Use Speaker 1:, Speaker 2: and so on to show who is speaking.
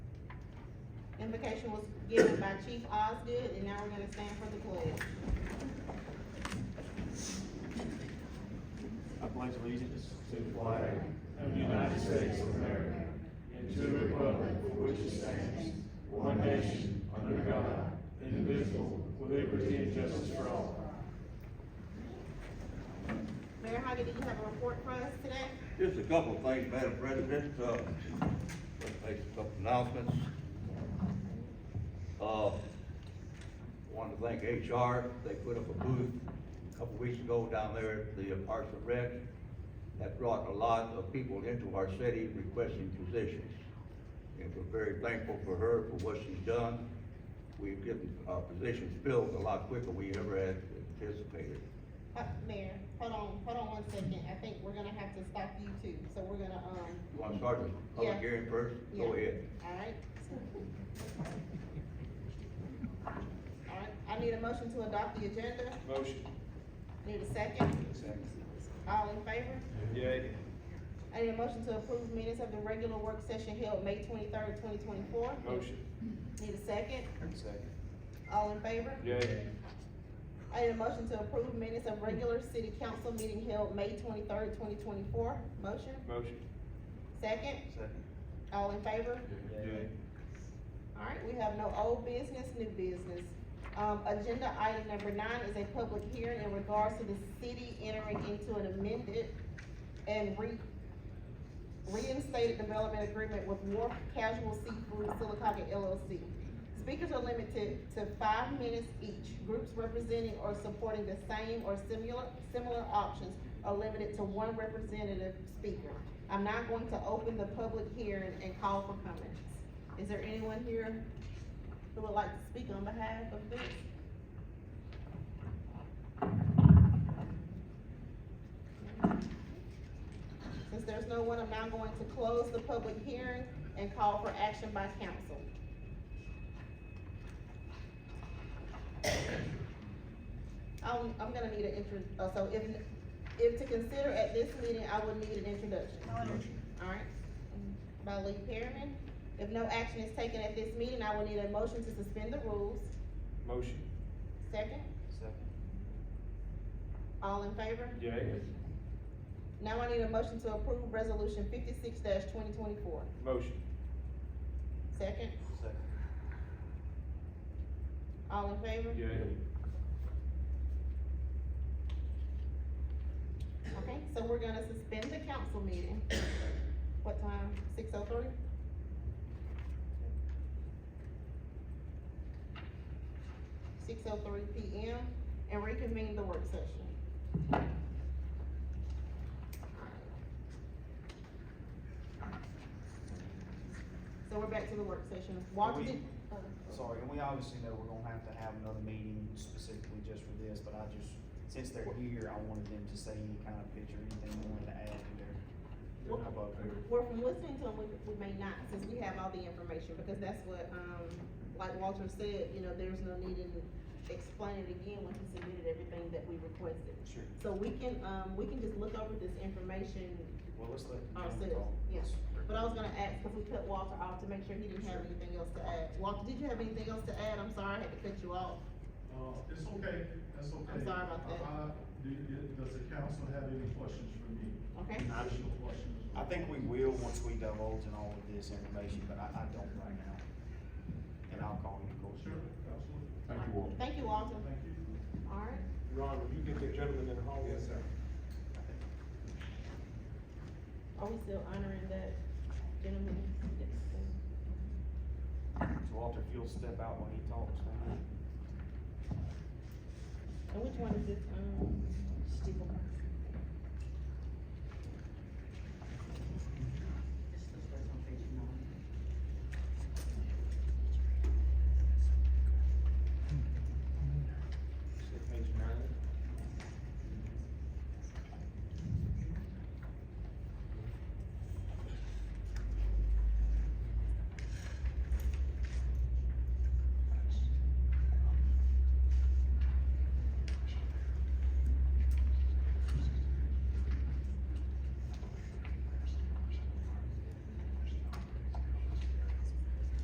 Speaker 1: Invocation was given by Chief Osgood, and now we're gonna stand for the pledge.
Speaker 2: I pledge allegiance
Speaker 3: to the flag of the United States of America and to the republic for which it stands, one nation, under God, indivisible, with liberty and justice for all.
Speaker 1: Mayor Hoggy, do you have a report for us today?
Speaker 4: Just a couple of things, Madam President, uh, let's make a couple announcements. Uh, want to thank HR, they put up a booth a couple weeks ago down there at the Parks and Rec. That brought a lot of people into our city requesting positions. And we're very thankful for her for what she's done. We've gotten our positions filled a lot quicker than we ever had anticipated.
Speaker 1: Uh, Mayor, hold on, hold on one second, I think we're gonna have to stop you too, so we're gonna, um,
Speaker 4: You want to start the public
Speaker 1: Yeah.
Speaker 4: hearing first? Go
Speaker 1: Yeah.
Speaker 4: ahead.
Speaker 1: Alright. Alright, I need a motion to adopt the agenda,
Speaker 2: Motion.
Speaker 1: need a second,
Speaker 2: Second.
Speaker 1: all in favor?
Speaker 2: Yay.
Speaker 1: I need a motion to approve minutes of the regular work session held May twenty-third, twenty twenty-four,
Speaker 2: Motion.
Speaker 1: need a second,
Speaker 2: Second.
Speaker 1: all in favor?
Speaker 2: Yay.
Speaker 1: I need a motion to approve minutes of regular city council meeting held May twenty-third, twenty twenty-four, motion,
Speaker 2: Motion.
Speaker 1: second,
Speaker 2: Second.
Speaker 1: all in favor?
Speaker 2: Yay.
Speaker 1: Alright, we have no old business, new business. Um, agenda item number nine is a public hearing in regards to the city entering into an amended and re- reinstated development agreement with Wharf Casual Seafood Silicaca LLC. Speakers are limited to five minutes each. Groups representing or supporting the same or similar, similar options are limited to one representative speaker. I'm now going to open the public hearing and call for comments. Is there anyone here who would like to speak on behalf of this? Since there's no one, I'm now going to close the public hearing and call for action by council. I'm, Um, I'm gonna need an intro, uh, so if, if to consider at this meeting, I would need an introduction. Alright, by Lee Perryman. If no action is taken at this meeting, I will need a motion to suspend the rules.
Speaker 2: Motion.
Speaker 1: Second,
Speaker 2: Second.
Speaker 1: all in favor?
Speaker 2: Yay.
Speaker 1: Now I need a motion to approve resolution fifty-six twenty twenty-four.
Speaker 2: Motion.
Speaker 1: Second,
Speaker 2: Second.
Speaker 1: all in favor?
Speaker 2: Yay.
Speaker 1: Okay, so we're gonna suspend the council meeting. What time? Six oh three? Six oh three P M and reconvene the work session. So we're back to the work session. Walter
Speaker 5: we-
Speaker 1: did, uh,
Speaker 5: Sorry, and we obviously know we're gonna have to have another meeting specifically just for this, but I just, since they're here, I wanted them to say any kind of picture, anything they wanted to add to their.
Speaker 2: They're not
Speaker 5: about their-
Speaker 1: we're from listening to them, we, we may not, since we have all the information, because that's what, um, like Walter said, you know, there's no need in explaining it again when he submitted everything that we requested.
Speaker 5: Sure.
Speaker 1: So we can, um, we can just look over this information,
Speaker 5: Well, let's let. them
Speaker 1: Ourselves,
Speaker 5: talk.
Speaker 1: yeah. but I was gonna ask, cause we cut Walter off to make sure he didn't have anything else to add. Walter, did you have anything else to add? I'm sorry, I had to cut you off.
Speaker 3: Uh, It's okay, that's okay.
Speaker 1: I'm sorry about that.
Speaker 3: Uh, do- do- Does the council have any questions for me?
Speaker 1: Okay.
Speaker 3: Additional questions?
Speaker 5: I think we will once we divulge in all of this information, but I, I don't right now. And I'll call you, of course.
Speaker 3: Sure, absolutely.
Speaker 1: Thank you, Walter. Thank you, Walter.
Speaker 3: Thank you.
Speaker 1: Alright.
Speaker 6: Ron, will you get the gentleman in the hall? Yes, sir.
Speaker 1: Are we still honoring that gentleman?
Speaker 5: So Walter, if you'll step out while he talks.
Speaker 1: And which one is this, um?